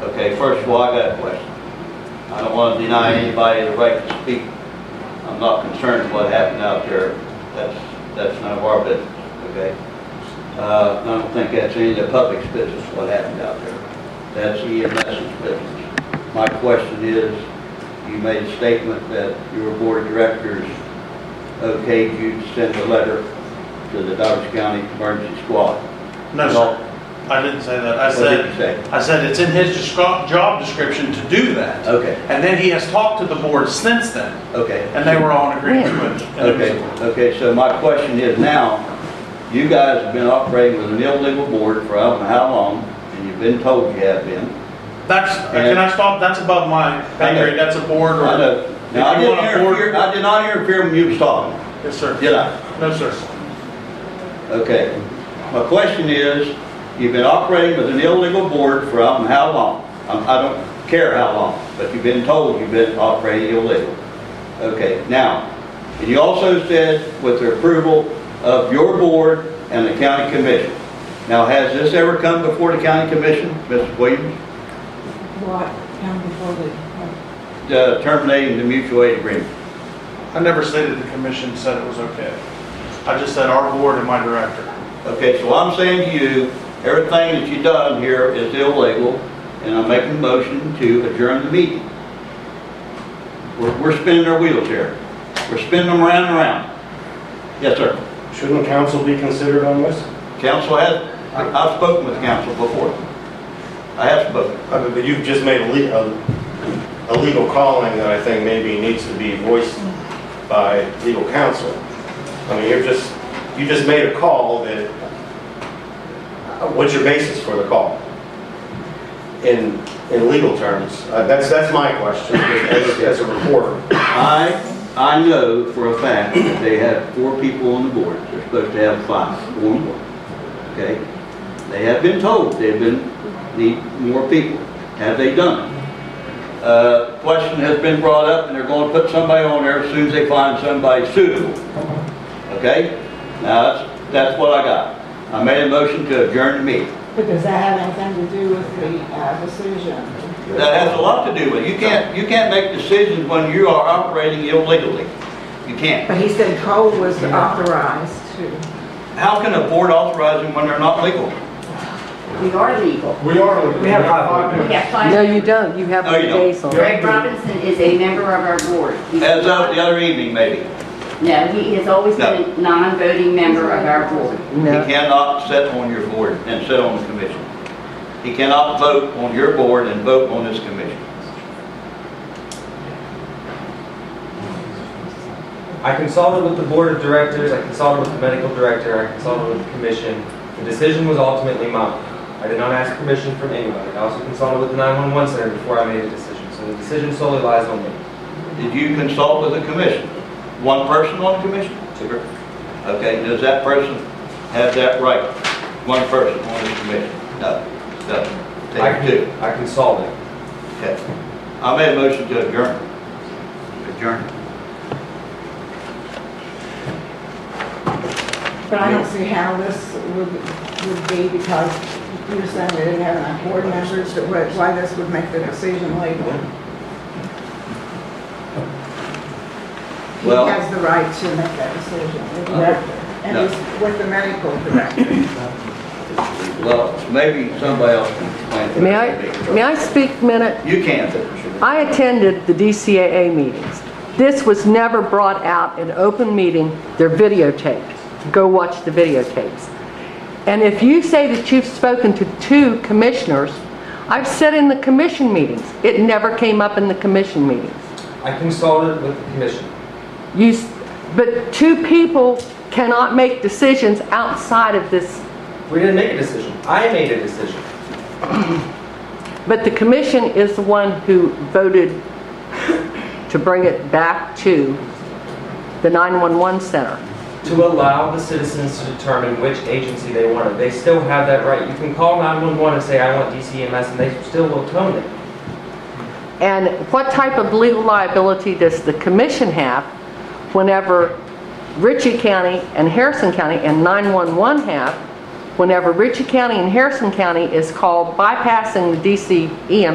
Okay, first of all, I got a question. I don't want to deny anybody the right to speak. I'm not concerned what happened out there. That's, that's none of our business, okay? Uh, I don't think that's any of the public's business what happened out there. That's EMS's business. My question is, you made a statement that your board of directors okayed you to send a letter to the Dodge County Emergency Squad. No, sir. I didn't say that. I What did said, you say? I said it's in his descri- job description to do that. Okay, And then he has talked to the board since then, okay. and they were all in agreement with it. And it was- Okay, okay, so my question is now, you guys have been operating with an illegal board for I don't know how long, and you've been told you have been. That's, can I stop? That's above my pay grade. That's a board I or, know, now, I If you didn't want a board- interfere, I did not interfere when you was talking, yes, sir. did I? No, sir. Okay, my question is, you've been operating with an illegal board for I don't know how long? I'm- I don't care how long, but you've been told you've been operating illegal. Okay, now, and you also said with the approval of your board and the county commission. Now, has this ever come before the county commission, Mrs. Williams, What, come before the, uh, terminating the mutual aid agreement? I never stated the commission said it was okay. I just said our board and my director. Okay, so I'm saying to you, everything that you done here is illegal, and I'm making a motion to adjourn the meeting. We're, we're spinning our wheels here. We're spinning them around and around. Yes, sir. Shouldn't council be considered on this? Council has, I've spoken with council before. I have spoken. I mean, But you've just made a le- a- a legal calling that I think maybe needs to be voiced by legal counsel. I mean, you're just, you just made a call that, uh, what's your basis for the call? In, in legal terms, Uh, that's, that's my question as as a reporter. I, I know for a fact that they have four people on the board. They're supposed to have five, four more, okay? They have been told they've been, need more people. Have they done it? Uh, question has been brought up, and they're gonna put somebody on there as soon as they find somebody suitable, okay? Now, that's, that's what I got. I made a motion to adjourn the meeting. but does that have anything to do with the uh, decision? That has a lot to do with it. You can't, you can't make decisions when you are operating illegally. You can't. But he said Cole was authorized to. How can a board authorize them when they're not legal? We are legal. We are. We have five. We have No, five. you don't, you have No, Oh, you three don't. days on. Greg Robinson is a member of our board. He's As not- of the other evening, maybe. No, he has always No. been a non-voting member of our board. He No, cannot sit on your board and sit on the commission. He cannot vote on your board and vote on this commission. I consulted with the board of directors, I consulted with the medical director, I consulted with the commission. The decision was ultimately mine. I did not ask permission from anyone. I also consulted with the 911 center before I made a decision, so the decision solely lies on me. Did you consult with the commission? One person on the commission? Okay, does that person have that right? One person on the commission? No, doesn't. Take I con- two. I consulted. Okay. I made a motion to adjourn. Adjourn. But I don't see how this would, would be because you're saying they didn't have enough board members, that would- why this would make the decision legal. He Well- has the right to make that decision, the director, and No. he's with the medical director. Well, maybe somebody else can explain. may I, may I speak a minute? You can. I attended the DCAA meetings. This was never brought out in open meeting, they're videotaped. Go watch the videotapes. And if you say that you've spoken to two commissioners, I've said in the commission meetings, it never came up in the commission meetings. I consulted with the commission. You, s- but two people cannot make decisions outside of this We didn't make a decision. I made a decision. But the commission is the one who voted to bring it back to the 911 center. to allow the citizens to determine which agency they wanted. They still have that right. You can call 911 and say, I want DCMS, and they still will tone it. And what type of legal liability does the commission have whenever Ritchie County and Harrison County and 911 have whenever Ritchie County and Harrison County is called bypassing the E DC EMS